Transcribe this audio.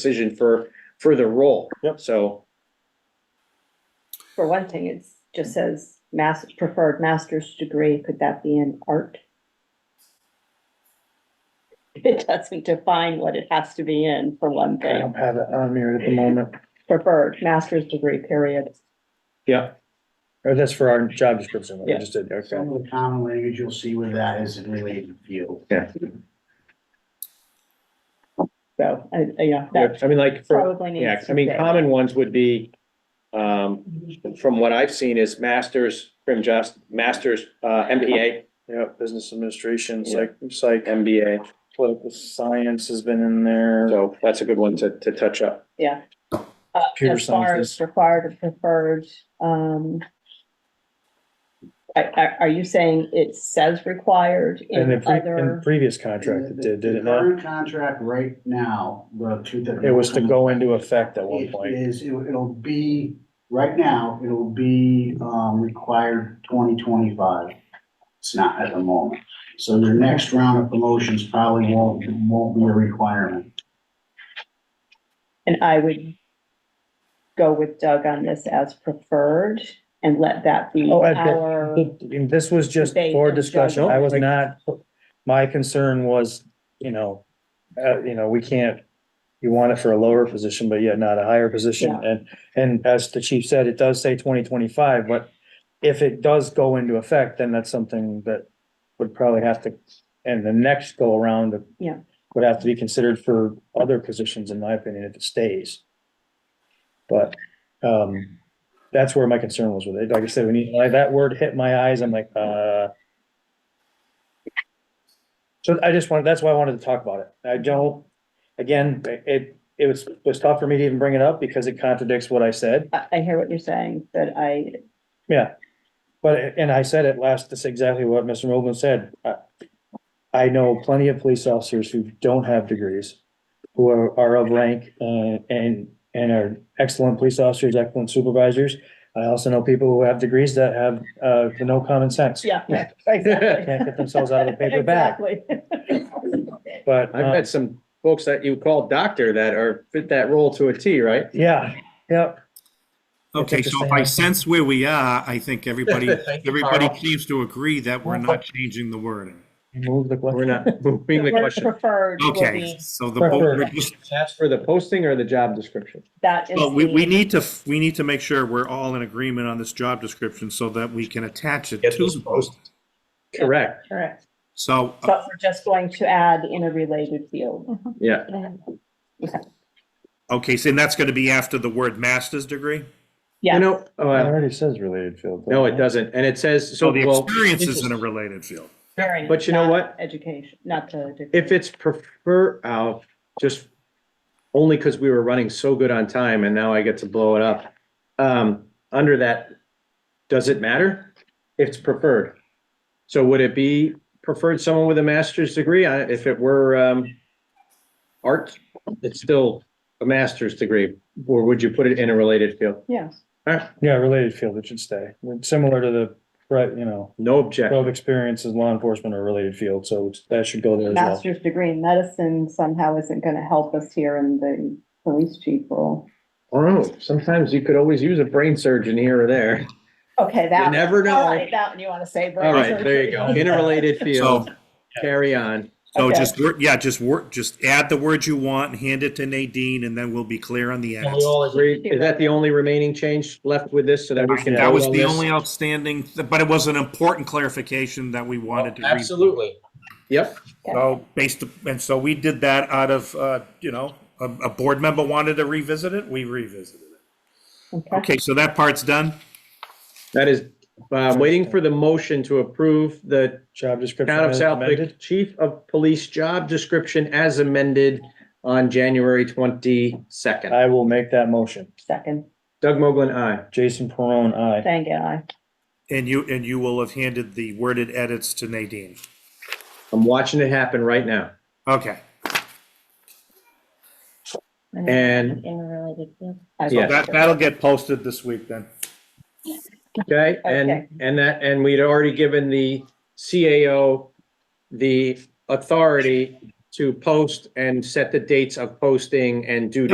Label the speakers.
Speaker 1: decision for, for the role.
Speaker 2: Yep.
Speaker 1: So,
Speaker 3: For one thing, it's, just says mas- preferred master's degree, could that be in art? It doesn't define what it has to be in, for one
Speaker 2: I
Speaker 3: thing,
Speaker 2: don't have it on here at the moment,
Speaker 3: preferred master's degree, period.
Speaker 1: yeah,
Speaker 2: or that's for our job description, what we
Speaker 1: Yeah.
Speaker 2: just did, okay.
Speaker 4: Some of the common language you'll see with that is in related field.
Speaker 3: So, I, I- yeah, that
Speaker 1: I mean, like, for,
Speaker 3: probably
Speaker 1: yeah,
Speaker 3: needs
Speaker 1: I
Speaker 3: to
Speaker 1: mean,
Speaker 3: stay.
Speaker 1: common ones would be, um, from what I've seen is masters, crim just, masters, uh, MBA,
Speaker 2: Yeah, business administration,
Speaker 1: Yeah.
Speaker 2: psych, psych,
Speaker 1: MBA.
Speaker 2: political science has been in there.
Speaker 1: So that's a good one to, to touch up.
Speaker 3: Yeah. Uh,
Speaker 2: Computer
Speaker 3: as far as
Speaker 2: sciences.
Speaker 3: Required or preferred, um. Are, are, are you saying it says required
Speaker 2: In the,
Speaker 3: in
Speaker 2: pre- in
Speaker 3: other,
Speaker 2: previous contract, it did, did it not?
Speaker 4: Current contract right now, the two that. are-
Speaker 2: It was to go into effect at one
Speaker 4: It
Speaker 2: point.
Speaker 4: is, it- it'll be, right now, it'll be, um, required twenty twenty-five. It's not at the moment. So your next round of promotions probably won't, won't be a requirement.
Speaker 3: and I would. Go with Doug on this as preferred and let that be
Speaker 2: Oh, at the-
Speaker 3: our,
Speaker 2: And This was just
Speaker 3: Debate
Speaker 2: for
Speaker 3: and
Speaker 2: discussion, I was
Speaker 1: judgment.
Speaker 2: not, my concern was, you know, uh, you know, we can't, you want it for a lower position, but yet not a higher position,
Speaker 3: Yeah.
Speaker 2: and, and as the chief said, it does say twenty twenty-five, but if it does go into effect, then that's something that would probably have to, and the next go around of-
Speaker 3: Yeah.
Speaker 2: would have to be considered for other positions, in my opinion, if it stays. But, um, that's where my concern was with it. Like I said, when you, like, that word hit my eyes, I'm like, uh. So I just wanted, that's why I wanted to talk about it. I don't, again, it, it was, was tough for me to even bring it up because it contradicts what I said.
Speaker 3: I, I hear what you're saying, but I,
Speaker 2: Yeah, but, and I said it last, that's exactly what Mr. Mogul said. I- I know plenty of police officers who don't have degrees, who are, are of rank, uh, and, and are excellent police officers, excellent supervisors. I also know people who have degrees that have, uh, no common sense.
Speaker 3: yeah.
Speaker 2: Can't get themselves out of a paper bag,
Speaker 3: Exactly.
Speaker 2: but,
Speaker 1: I've
Speaker 2: uh,
Speaker 1: met some folks that you call doctor that are, fit that role to a T, right?
Speaker 2: uh, yeah, yeah.
Speaker 5: Okay,
Speaker 2: It's just
Speaker 5: so
Speaker 2: the
Speaker 5: if I
Speaker 2: same.
Speaker 5: sense where we are, I think everybody,
Speaker 2: Thank you,
Speaker 5: everybody
Speaker 2: Carl.
Speaker 5: seems to agree that we're not changing the wording.
Speaker 2: Move the
Speaker 1: We're
Speaker 2: question.
Speaker 1: not moving the
Speaker 3: The word
Speaker 1: question.
Speaker 3: Preferred will
Speaker 5: Okay,
Speaker 3: be,
Speaker 5: so the, bo- we're just-
Speaker 1: That's for the posting or the job description?
Speaker 3: that is
Speaker 5: well, we,
Speaker 3: the,
Speaker 5: we
Speaker 3: uh,
Speaker 5: need to, we need to make sure we're all in agreement on this job description so that we can attach it
Speaker 1: Get
Speaker 5: to
Speaker 1: this
Speaker 5: the post.
Speaker 1: Correct,
Speaker 3: correct,
Speaker 5: So, uh,
Speaker 3: but we're just going to add in a related field.
Speaker 1: yeah,
Speaker 5: okay, so and that's gonna be after the word master's degree?
Speaker 3: Yeah.
Speaker 1: you know,
Speaker 2: It
Speaker 1: uh,
Speaker 2: already says related field.
Speaker 1: no, it doesn't, and it says, so.
Speaker 5: So the
Speaker 1: well,
Speaker 5: experience is in a related field.
Speaker 3: Variant,
Speaker 1: But you know
Speaker 3: not
Speaker 1: what?
Speaker 3: Education, not the. degree.
Speaker 1: If it's prefer, uh, just only because we were running so good on time and now I get to blow it up. Um, under that, does it matter? It's preferred. So would it be preferred someone with a master's degree? I- If it were, um, art, it's still a master's degree, or would you put it in a related field?
Speaker 3: Yes,
Speaker 1: All right,
Speaker 2: Yeah, related field, it should stay, similar to the, right, you know.
Speaker 1: no objection.
Speaker 2: Twelve experience in law enforcement or related field, so that should go there as well.
Speaker 3: master's degree in medicine somehow isn't gonna help us here in the police chief role.
Speaker 1: Oh, sometimes you could always use a brain surgeon here or there.
Speaker 3: Okay, that. one.
Speaker 1: never know.
Speaker 3: All right, that one you want to say.
Speaker 1: All right, there you go. In a related
Speaker 5: So,
Speaker 1: field, carry on.
Speaker 5: so
Speaker 3: Okay.
Speaker 5: just, wor- yeah, just work, just add the words you want, hand it to Nadine, and then we'll be clear on the edits.
Speaker 1: Agree. Is that the only remaining change left with this so that we can?
Speaker 5: That was
Speaker 1: vote on
Speaker 5: the
Speaker 1: this?
Speaker 5: only outstanding, th- but it was an important clarification that we wanted to. read.
Speaker 1: Yep,
Speaker 5: So based, and so we did that out of, uh, you know, a, a board member wanted to revisit it, we revisited it.
Speaker 3: Okay.
Speaker 5: Okay, so that part's done.
Speaker 1: that is, uh, waiting for the motion to approve the
Speaker 2: Job description
Speaker 1: town of
Speaker 2: as amended.
Speaker 1: Southwick Chief of Police job description as amended on January twenty-second.
Speaker 2: I will make that motion.
Speaker 3: Second,
Speaker 1: Doug Moglen, aye.
Speaker 2: Jason Perone, aye.
Speaker 3: thank you, I.
Speaker 5: And you, and you will have handed the worded edits to Nadine.
Speaker 1: I'm watching it happen right now.
Speaker 5: Okay,
Speaker 1: And,
Speaker 3: Interrelated,
Speaker 1: Yeah.
Speaker 5: that, that'll get posted this week then.
Speaker 1: okay, and,
Speaker 3: Okay.
Speaker 1: and that, and we'd already given the CAO the authority to post and set the dates of posting and due